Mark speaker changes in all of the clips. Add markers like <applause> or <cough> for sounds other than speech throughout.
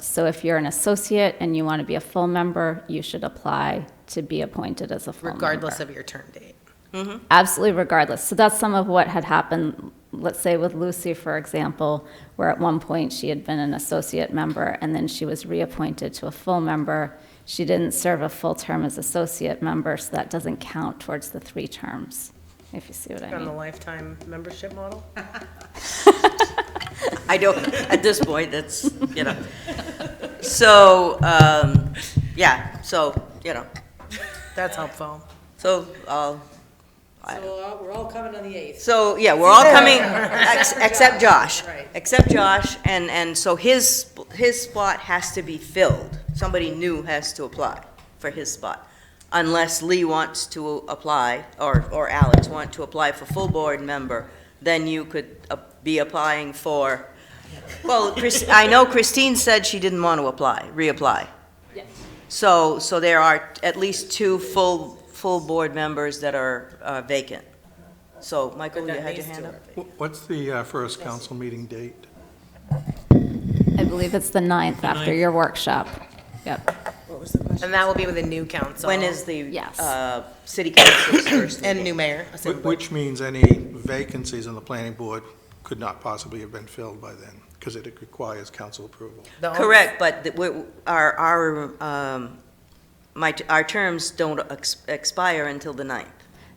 Speaker 1: So if you're an associate and you want to be a full member, you should apply to be appointed as a full member.
Speaker 2: regardless of your term date.
Speaker 1: Absolutely regardless. So that's some of what had happened, let's say with Lucy, for example, where at one point she had been an associate member and then she was reappointed to a full member. She didn't serve a full term as associate member, so that doesn't count towards the three terms, if you see what I
Speaker 2: On the
Speaker 1: mean.
Speaker 2: lifetime membership model?
Speaker 3: I don't, at this point, that's, you know. So, um, yeah, so, you know,
Speaker 2: That's helpful.
Speaker 3: so, uh,
Speaker 4: So we're all- we're all coming on the 8th.
Speaker 3: so, yeah, we're all
Speaker 4: <laughs>
Speaker 3: coming, ex- except Josh.
Speaker 4: Right.
Speaker 3: Except Josh, and, and so his, his spot has to be filled. Somebody new has to apply for his spot. Unless Lee wants to apply, or, or Alex want to apply for full board member, then you could uh, be applying for, well, Chris- I know Christine said she didn't want to apply, reapply. So, so there are at least two full, full board members that are uh, vacant. So, Michael, you
Speaker 2: That
Speaker 3: had your
Speaker 2: needs
Speaker 3: hand
Speaker 2: to
Speaker 3: up?
Speaker 2: work.
Speaker 5: Wh- What's the uh, first council meeting date?
Speaker 1: I believe it's the ninth after your workshop. Yep.
Speaker 2: And that will be with a new council.
Speaker 3: When is the?
Speaker 1: Yes.
Speaker 3: uh, City council's
Speaker 2: <clears throat>
Speaker 3: first?
Speaker 2: And new mayor.
Speaker 5: Wh-
Speaker 2: assembly.
Speaker 5: Which means any vacancies on the planning board could not possibly have been filled by then, because it requires council approval.
Speaker 2: The only-
Speaker 3: Correct, but the- we- our, our, um, my, our terms don't ex- expire until the ninth,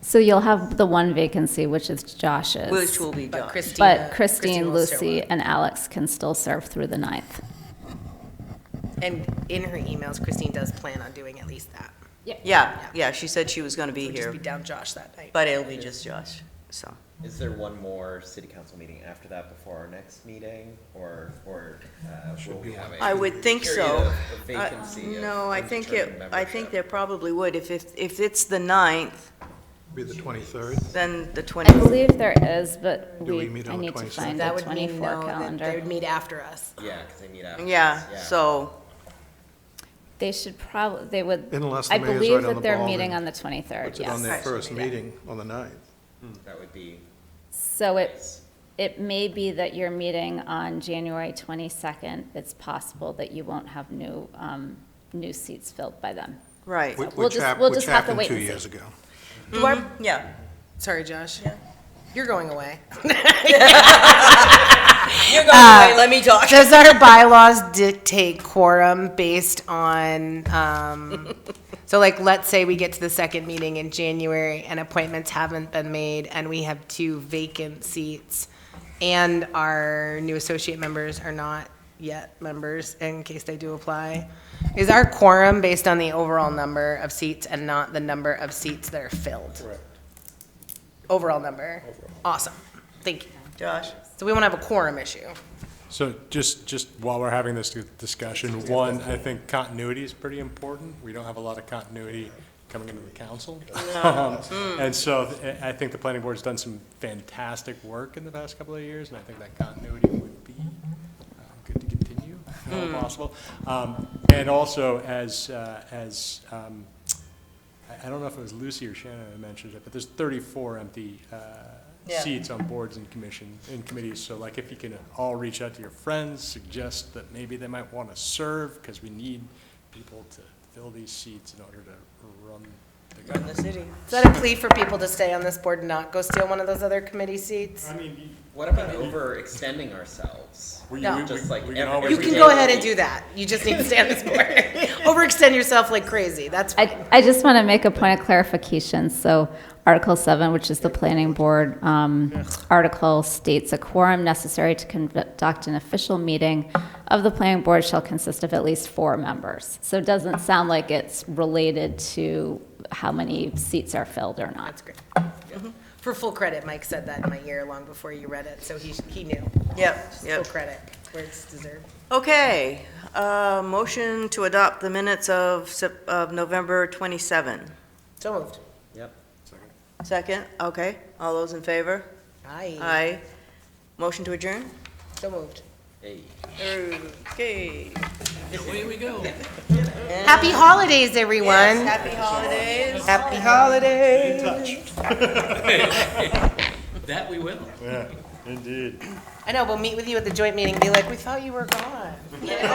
Speaker 1: So you'll have the one vacancy, which is Josh's.
Speaker 3: which will be
Speaker 2: But
Speaker 3: Josh.
Speaker 2: Christina.
Speaker 1: But Christine,
Speaker 2: will show
Speaker 1: Lucy,
Speaker 2: up.
Speaker 1: and Alex can still serve through the ninth.
Speaker 2: And in her emails, Christine does plan on doing at least that.
Speaker 3: Yeah, yeah, she said she was going to be
Speaker 2: We'll just
Speaker 3: here,
Speaker 2: be down Josh that night.
Speaker 3: but it'll be just Josh, so.
Speaker 6: Is there one more city council meeting after that before our next meeting, or, or uh, will we have a?
Speaker 3: I would think so.
Speaker 6: period of- of
Speaker 3: I-
Speaker 6: vacancy of
Speaker 3: Uh, No, I think it,
Speaker 6: undetermined
Speaker 3: I think there
Speaker 6: membership?
Speaker 3: probably would. If, if, if it's the ninth,
Speaker 5: Be the 23rd.
Speaker 3: then the
Speaker 1: I
Speaker 3: 20th.
Speaker 1: believe there is, but
Speaker 5: Do we
Speaker 1: we,
Speaker 5: meet
Speaker 1: I
Speaker 5: on the
Speaker 1: need to
Speaker 5: 26th?
Speaker 1: find the
Speaker 2: That would mean, no,
Speaker 1: twenty-four
Speaker 2: that they
Speaker 1: calendar.
Speaker 2: would meet after us.
Speaker 6: Yeah, because they meet after.
Speaker 3: Yeah, so,
Speaker 1: They should probably, they would,
Speaker 5: Unless the
Speaker 1: I
Speaker 5: mayor's
Speaker 1: believe
Speaker 5: right on
Speaker 1: that
Speaker 5: the
Speaker 1: they're
Speaker 5: ball
Speaker 1: meeting
Speaker 5: and
Speaker 1: on the twenty-third,
Speaker 5: Puts it on
Speaker 1: yes.
Speaker 5: their
Speaker 3: Right.
Speaker 5: first meeting on the 9th.
Speaker 7: Hmm.
Speaker 6: That would be,
Speaker 1: So it, it may be that you're meeting on January twenty-second. It's possible that you won't have new, um, new seats filled by then.
Speaker 3: right.
Speaker 5: wh-
Speaker 1: We'll
Speaker 5: which
Speaker 1: just-
Speaker 5: hap-
Speaker 1: we'll just have to wait
Speaker 5: Which happened two
Speaker 1: and see.
Speaker 5: years ago.
Speaker 2: Do our-
Speaker 3: Yeah.
Speaker 2: Sorry, Josh. You're going
Speaker 1: <laughs>
Speaker 2: away. <laughs>
Speaker 3: You're going
Speaker 1: Uh,
Speaker 3: away, let me talk.
Speaker 2: Does our bylaws dictate quorum based on, um, so like, let's say we get to the second meeting in January and appointments haven't been made and we have two vacant seats and our new associate members are not yet members in case they do apply. Is our quorum based on the overall number of seats and not the number of seats that are filled? Correct. Overall number? Awesome. Thank you.
Speaker 3: Josh?
Speaker 2: So we won't have a quorum issue.
Speaker 7: So just, just while we're having this discussion, one, I think continuity is pretty important. We don't have a lot of continuity coming into the council. <laughs> Um, And so th- I I think the planning board's done some fantastic work in the past couple of years, and I think that continuity would be uh, good to continue, if at all possible. Um, And also, as, uh, as, um, I I don't know if it was Lucy or Shannon that mentioned it, but there's 34 empty uh,
Speaker 3: Yeah.
Speaker 7: seats on boards and commission, and committees. So like, if you can all reach out to your friends, suggest that maybe they might want to serve, because we need people to fill these seats in order to run the
Speaker 3: From the
Speaker 7: government.
Speaker 3: city.
Speaker 2: Is that a plea for people to stay on this board and not go steal one of those other committee seats?
Speaker 7: I mean,
Speaker 6: what about overextending ourselves?
Speaker 7: we, we,
Speaker 2: No.
Speaker 7: we-
Speaker 6: Just like
Speaker 7: we can
Speaker 6: every-
Speaker 7: always.
Speaker 2: You can go ahead and do that. You just need to stay on this board. Overextend yourself like crazy. That's fine.
Speaker 1: I, I just want to make a point of clarification. So Article 7, which is the planning board um, article, states a quorum necessary to conduct an official meeting of the planning board shall consist of at least four members. So it doesn't sound like it's related to how many seats are filled or not.
Speaker 2: That's great. For full credit, Mike said that in my ear long before you read it, so he, he knew.
Speaker 3: Yep,
Speaker 2: Full
Speaker 3: yep.
Speaker 2: credit where it's deserved.
Speaker 3: Okay, uh, motion to adopt the minutes of, Sep- of November 27.
Speaker 2: So moved.
Speaker 6: Yep.
Speaker 3: Second, okay, all those in favor?
Speaker 2: Aye.
Speaker 3: Aye. Motion to adjourn?
Speaker 2: So moved.
Speaker 6: Hey.
Speaker 3: Okay.
Speaker 2: Happy holidays, everyone.
Speaker 3: Happy holidays.
Speaker 2: Happy holidays.
Speaker 8: That we will.
Speaker 7: Indeed.
Speaker 2: I know, we'll meet with you at the joint meeting, be like, we thought you were gone.